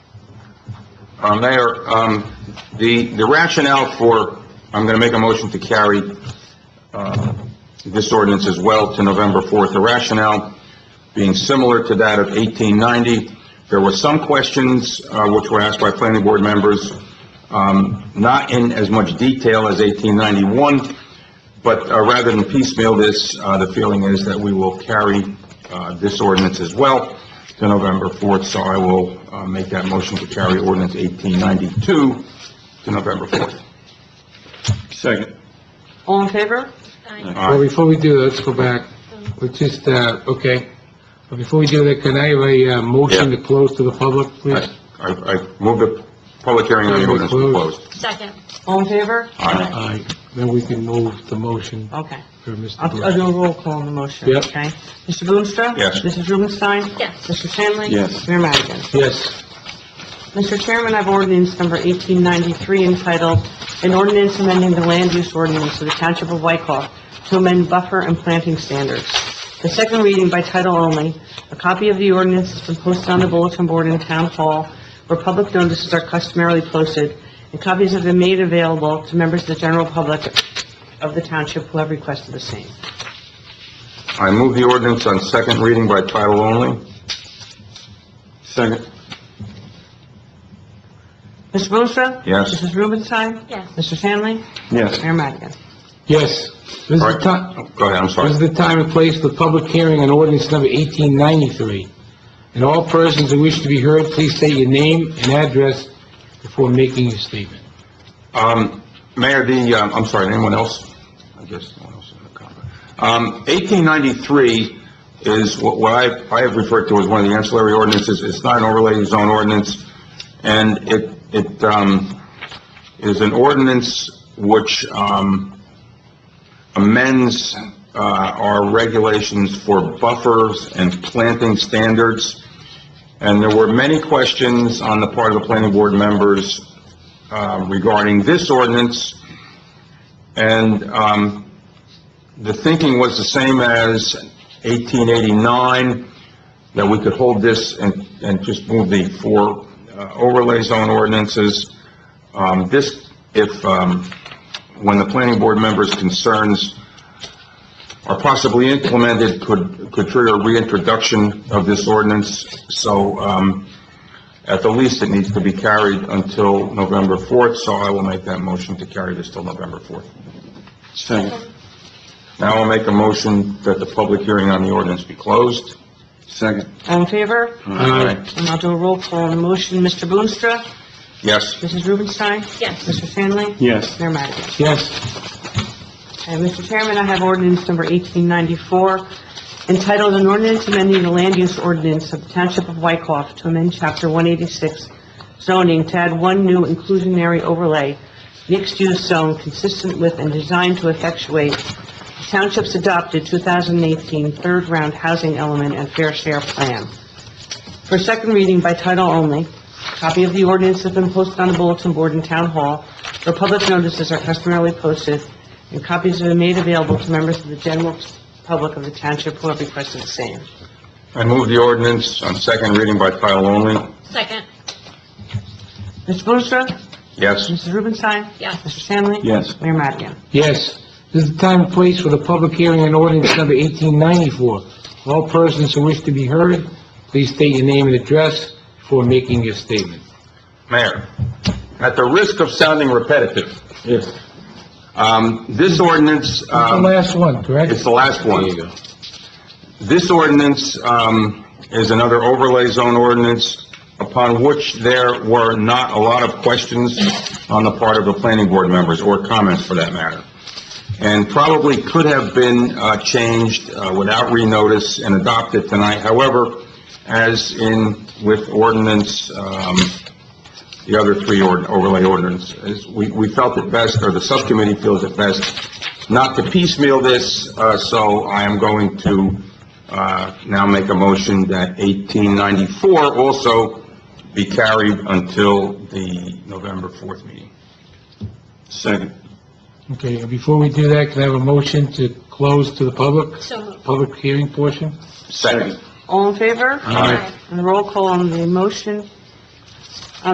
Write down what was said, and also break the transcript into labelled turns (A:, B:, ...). A: Uh, Mayor, um, the the rationale for, I'm going to make a motion to carry uh, this ordinance as well to November 4th. The rationale being similar to that of 1890. There were some questions uh, which were asked by planning board members, um, not in as much detail as 1891, but uh, rather than piecemeal this, uh, the feeling is that we will carry uh, this ordinance as well to November 4th, so I will uh, make that motion to carry ordinance 1892 to November 4th.
B: Second.
C: All in favor?
A: All
D: Well,
A: right.
D: before we do, that, let's go back, let's just, uh, okay, But before we do that, can I have a uh, motion to close to the public, please?
A: I I move the public hearing on the ordinance be closed.
E: Second.
C: All in favor?
A: Aye.
D: Aye. Then we can move the motion
C: Okay.
D: for Mr.
C: I'll I'll
D: Black.
C: do a roll call on the motion,
D: Yep.
C: okay? Mr. Boonstra?
A: Yes.
C: Mrs. Rubenstein?
E: Yes.
C: Mr. Stanley?
B: Yes.
C: Mayor Madigan?
D: Yes,
C: Mr. Chairman, I have ordinance number 1893 entitled, "An Ordinance Amending the Land Use Ordinance of the Township of Wykoff to Amend Buffer and Planting Standards." The second reading by title only. A copy of the ordinance has been posted on the bulletin board in Town Hall, where public notices are customarily posted, and copies have been made available to members of the general public of the township who have requested the same.
A: I move the ordinance on second reading by title only.
B: Second.
C: Mr. Bostrer?
A: Yes.
C: Mrs. Rubenstein?
E: Yes.
C: Mr. Stanley?
B: Yes.
C: Mayor Madigan?
D: yes. This is
A: All
D: the
A: right.
D: time,
A: Go ahead, I'm
D: this
A: sorry.
D: is the time and place for the public hearing on ordinance number 1893. And all persons who wish to be heard, please state your name and address before making your statement.
A: Um, Mayor, the, um, I'm sorry, anyone else? I guess no one else in the comment. Um, 1893 is what what I, I have referred to as one of the ancillary ordinances. It's not an overlay zone ordinance, and it, it, um, is an ordinance which, um, amends, uh, our regulations for buffers and planting standards. And there were many questions on the part of the planning board members um, regarding this ordinance, and um, the thinking was the same as 1889, that we could hold this and and just move the four uh, overlay zone ordinances. Um, This, if, um, when the planning board members' concerns are possibly implemented, could could trigger reintroduction of this ordinance, so um, at the least, it needs to be carried until November 4th, so I will make that motion to carry this till November 4th.
B: Second.
A: Now I'll make a motion that the public hearing on the ordinance be closed.
B: Second.
C: All in favor?
D: Aye.
C: And I'll do a roll call on the motion. Mr. Boonstra?
A: Yes.
C: Mrs. Rubenstein?
E: Yes.
C: Mr. Stanley?
B: Yes.
C: Mayor Madigan?
D: Yes,
C: And Mr. Chairman, I have ordinance number 1894, entitled "An Ordinance Amending the Land Use Ordinance of the Township of Wykoff to amend Chapter 186 zoning to add one new inclusionary overlay, mixed-use zone consistent with and designed to effectuate the township's adopted 2018 third-round housing element and fair share plan." For second reading by title only, copy of the ordinance has been posted on the bulletin board in Town Hall, where public notices are customarily posted, and copies have been made available to members of the general public of the township who have requested the same.
A: I move the ordinance on second reading by title only.
E: Second.
C: Mr. Bostrer?
A: Yes.
C: Mrs. Rubenstein?
E: Yes.
C: Mr. Stanley?
B: Yes.
C: Mayor Madigan?
D: yes. This is the time and place for the public hearing on ordinance number 1894. All persons who wish to be heard, please state your name and address before making your statement.
A: Mayor, at the risk of sounding repetitive, um, this ordinance,
D: The
A: um,
D: last one, correct?
A: It's the last one.
D: There you go.
A: This ordinance um, is another overlay zone ordinance upon which there were not a lot of questions on the part of the planning board members, or comments for that matter, and probably could have been uh, changed uh, without renotice and adopted tonight. However, as in with ordinance, um, the other three ord- overlay ordinances, we we felt it best, or the subcommittee feels it best, not to piecemeal this, uh, so I am going to uh, now make a motion that 1894 also be carried until the November 4th meeting.
B: Second.
D: Okay, and before we do that, can I have a motion to close to the public,
E: So moved.
D: public hearing portion?
A: Second.
C: All in favor?
D: Aye.
C: And roll call on the motion.